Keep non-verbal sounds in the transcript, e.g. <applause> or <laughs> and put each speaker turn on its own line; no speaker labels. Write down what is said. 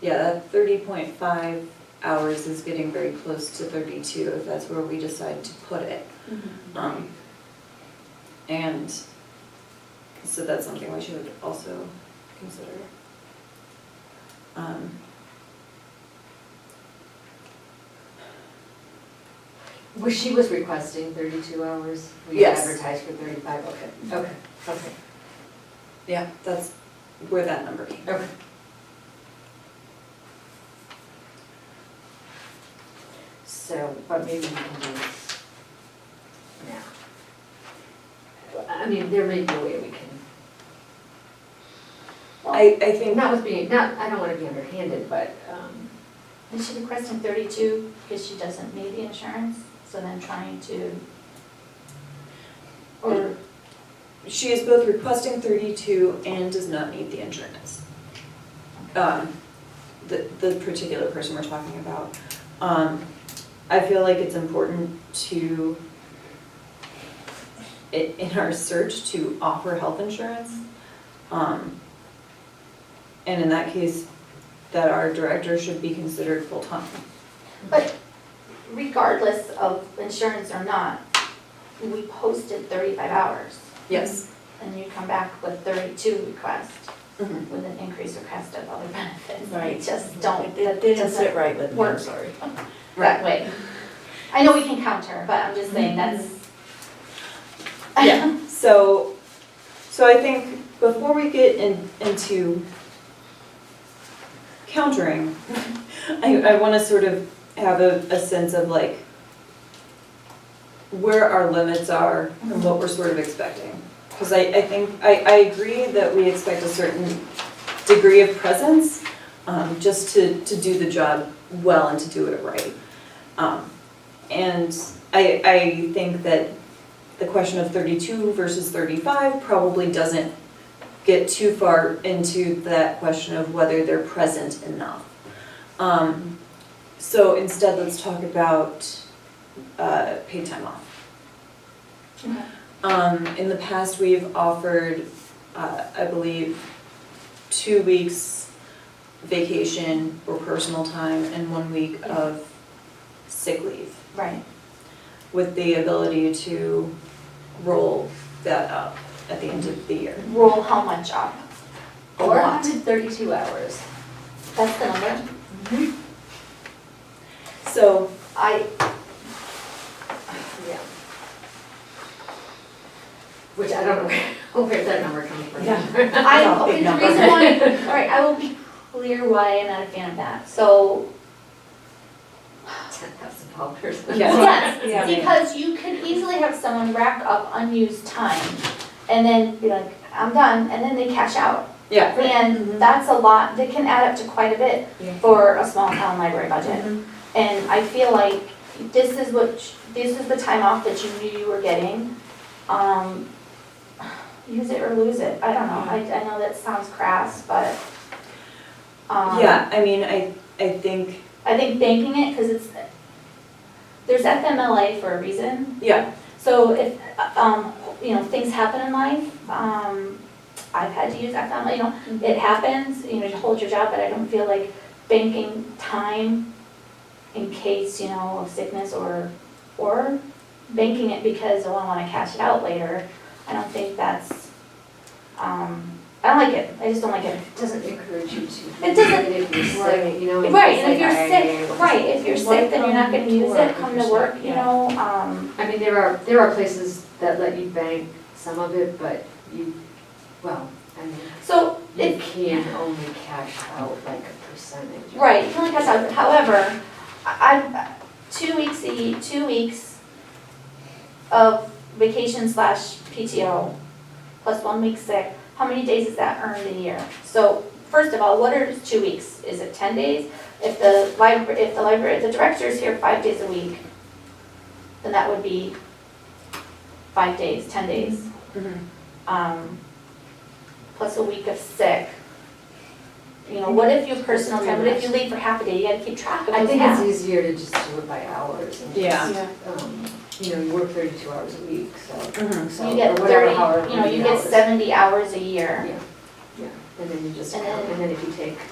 Yeah, that thirty point five hours is getting very close to thirty-two, if that's where we decide to put it.
Mm-hmm.
Um, and, so that's something we should also consider. Um,
Well, she was requesting thirty-two hours. We
Yes.
advertised for thirty-five, okay, okay, okay,
yeah, that's where that number came from.
okay. So, but maybe we can do this now. I mean, there may be a way we can.
I, I think,
Not with being, not, I don't wanna be underhanded, but, um,
And she requested thirty-two because she doesn't need the insurance, so then trying to, or,
she is both requesting thirty-two and does not need the insurance. Um, the, the particular person we're talking about. Um, I feel like it's important to, i- in our search, to offer health insurance. Um, and in that case, that our director should be considered full-time.
but regardless of insurance or not, we posted thirty-five hours.
Yes.
And you come back with thirty-two request,
Mhm.
with an increased request of other <laughs> benefits.
Right.
I just don't, that
It didn't sit
doesn't
right with me, I'm
work.
sorry.
that way. I know we can counter, but I'm just saying
Mm-hmm.
that's.
Yeah, so, so I think before we get in, into countering, <laughs> I, I wanna sort of have a, a sense of like where our limits are and what we're sort of expecting. Cause I, I think, I, I agree that we expect a certain degree of presence, um, just to, to do the job well and to do it right. Um, and I, I think that the question of thirty-two versus thirty-five probably doesn't get too far into that question of whether they're present enough. Um, so instead, let's talk about, uh, paid time off.
Okay.
Um, in the past, we've offered, uh, I believe, two weeks vacation or personal time and one week of sick leave
<laughs> Right.
with the ability to roll that up at the end of the year.
Roll how much up? A
or
lot.
up to thirty-two hours.
That's the number. Mm-hmm.
So,
I,
Yeah. Which I don't know where, <laughs> where that number comes from. <laughs> Yeah.
I,
Not a
okay,
big
the
number.
reason
<laughs>
why, all right, I will be clear why I'm not a fan of that. So,
Ten thousand dollars.
Yeah. Yeah.
yes, because you could easily have someone rack up unused time and then be like, I'm done, and then they cash out.
yeah.
And that's a lot, that can add up to quite a bit
Mm-hmm. Yeah. Mm-hmm.
for a small town library budget. And I feel like this is what, this is the time off that you knew you were getting. Um, use it or lose it, I don't know, I, I know that sounds crass, but, um,
Yeah, I mean, I, I think,
I think banking it, cause it's, there's FMLA for a reason,
yeah,
so if, um, you know, things happen in life, um, I've had to use FMLA, you know, it happens, you know, you hold your job, but I don't feel like banking time in case, you know, of sickness or, or banking it because, oh, I wanna cash it out later. I don't think that's, um, I don't like it, I just don't like it.
It doesn't encourage you to.
It doesn't-
If you're
Right.
sick, you know. it's
Right, and if
like,
you're
I-
sick,
I-
right, if you're sick, then you're not gonna use
Work
it,
if
come
you're
to
sick,
work, you
yeah.
know, um,
I mean, there are, there are places that let you bank some of it, but you, well, I mean,
so if,
you can only cash out like a percentage. of it.
Right, you can only pass out, however, I, I- two weeks, a ye- two weeks of vacation slash PTO, plus one week sick, how many days is that earned a year? So, first of all, what are two weeks, is it ten days? If the library, if the library, if the director is here five days a week, then that would be five days, ten days um, plus a week of sick. You know, what if your personal time, what if you leave for half a day, you gotta keep track of
I
those
think it's
half.
easier to just do it by hours and
Yeah.
just, um, you know, you work thirty-two hours a week, so.
Mhm.
so
You get
or whatever,
thirty,
however
you know, you
many
get
hours.
seventy hours a year.
Yeah, yeah, and then you just,
And
count,
then-
and then if you take